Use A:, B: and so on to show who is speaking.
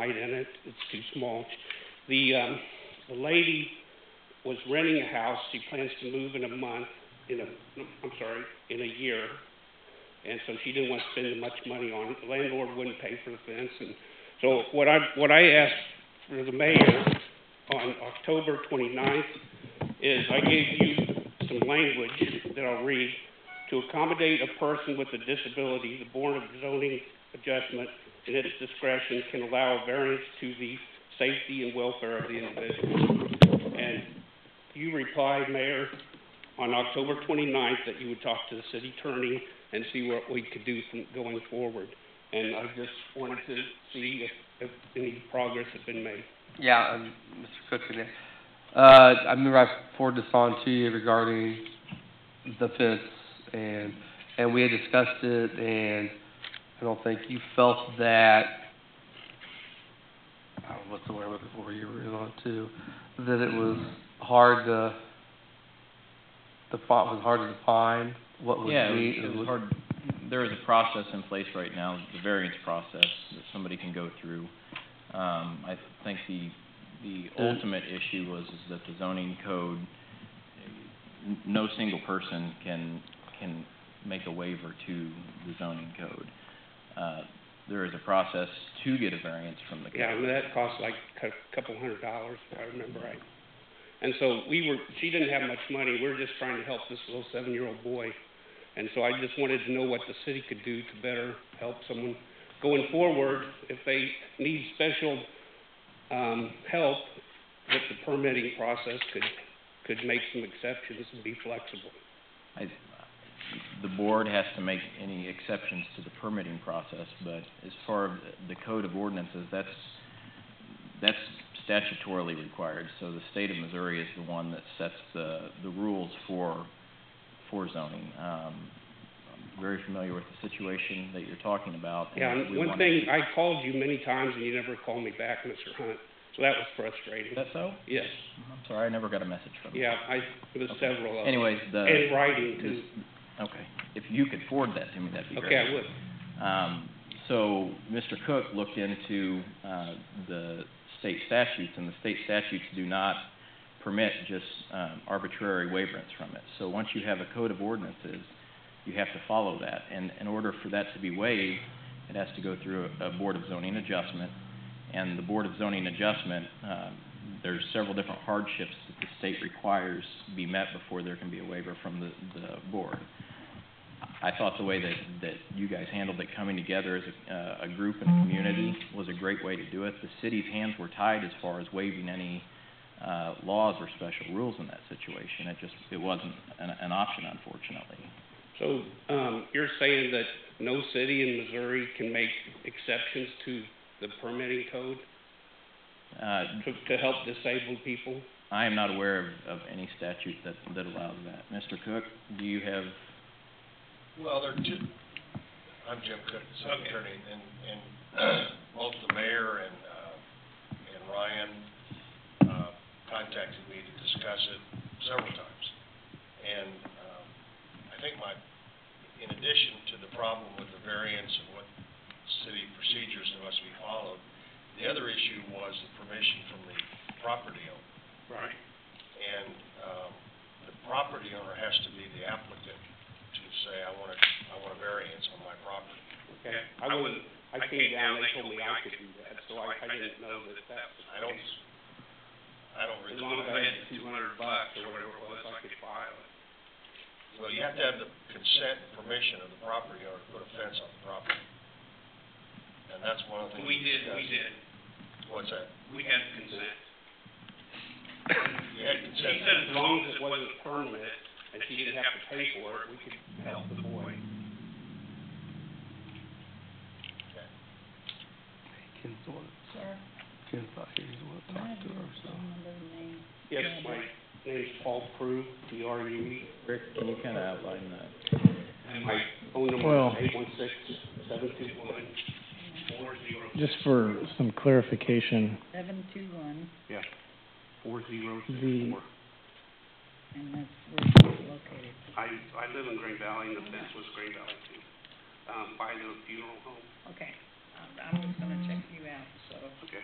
A: light in it, it's too small. The, um, the lady was renting a house, she plans to move in a month, in a, no, I'm sorry, in a year. And so she didn't want to spend much money on it, the landlord wouldn't pay for the fence, and so what I, what I asked for the mayor on October twenty-ninth is I gave you some language that I'll read. To accommodate a person with a disability, the Board of Zoning Adjustment in its discretion can allow a variance to the safety and welfare of the individual. And you replied, Mayor, on October 29th that you would talk to the city attorney and see what we could do from going forward. And I just wanted to see if, if any progress had been made.
B: Yeah, um, Mr. Cook again. Uh, I remember I forwarded this on to you regarding the fence and, and we had discussed it and I don't think you felt that, I don't know what's the word I'm looking for, you were on to, that it was hard to, the font was hard to define what would be.
C: Yeah, it was, it was hard, there is a process in place right now, the variance process, that somebody can go through. Um, I think the, the
B: Uh,
C: ultimate issue was is that the zoning code, n- no single person can, can make a waiver to the zoning code. Uh, there is a process to get a variance from the code.
A: Yeah, and that cost like a cou- couple hundred dollars, if I remember right. And so we were, she didn't have much money, we were just trying to help this little seven-year-old boy. And so I just wanted to know what the city could do to better help someone going forward, if they need special, um, help, that the permitting process could, could make some exceptions and be flexible.
C: I, the board has to make any exceptions to the permitting process, but as far as the code of ordinances, that's, that's statutorily required. So the state of Missouri is the one that sets the, the rules for, for zoning. Um, I'm very familiar with the situation that you're talking about. and
A: Yeah,
C: we
A: and one
C: wanna-
A: thing, I called you many times and you never called me back, Mr. Hunt, so that was frustrating.
C: Is that so?
A: Yes,
C: I'm sorry, I never got a message from you.
A: yeah, I, there was
C: Okay.
A: several of them.
C: Anyways, the.
A: In writing too.
C: this- Okay, if you could forward that to me, that'd be great.
A: Okay, I would.
C: Um, so Mr. Cook looked into, uh, the state statutes, and the state statutes do not permit just, um, arbitrary waiverance from it. So once you have a code of ordinances, you have to follow that. And in order for that to be waived, it has to go through a, a Board of Zoning Adjustment. And the Board of Zoning Adjustment, um, there's several different hardships that the state requires be met before there can be a waiver from the, the board. I thought the way that, that you guys handled it, coming together as a, uh, a group and a community was a great way to do it. The city's hands were tied as far as waiving any, uh, laws or special rules in that situation. It just, it wasn't an, an option unfortunately.
A: So, um, you're saying that no city in Missouri can make exceptions to the permitting code
C: Uh,
A: to, to help disabled people?
C: I am not aware of, of any statute that, that allows that. Mr. Cook, do you have,
D: Well, there are two, I'm Jim Cook, the city attorney, and, and both the mayor and, uh, and Ryan, uh, contacted me to discuss it several times. And, um, I think my, in addition to the problem with the variance and what city procedures that must be followed, the other issue was the permission from the property owner.
A: Right.
D: And, um, the property owner has to be the applicant to say, I want a, I want a variance on my property.
A: Okay, I wouldn't, I came down, they told me I could do that, so I, I didn't know that that was.
D: I don't, I don't
A: As long as
D: recall
A: I
D: that.
A: had two hundred bucks or whatever it was, I could file it.
D: Well, you have to have the consent and permission of the property owner to put a fence on the property. And that's one of the things. discussed.
A: did,
D: What's that?
A: we had consent.
D: You had
A: She
D: consent.
A: said as long as it wasn't permanent and she didn't have to pay for it, we could help the boy.
B: Ken's the one, Ken's not here, he's the one that talked to her, so.
A: Yes, my name's Paul Prue, P R U E.
C: Rick, can you kind of outline that?
A: And my phone number
E: Well-
A: is eight one six, seven two one, four zero.
E: Just for some clarification,
F: Seven two one,
A: Yeah, four zero six
E: The-
A: four.
F: and that's where it's located.
A: I, I live in Green Valley, and the fence was Green Valley too, um, by the funeral home.
F: Okay, all I'm just gonna check you out, so.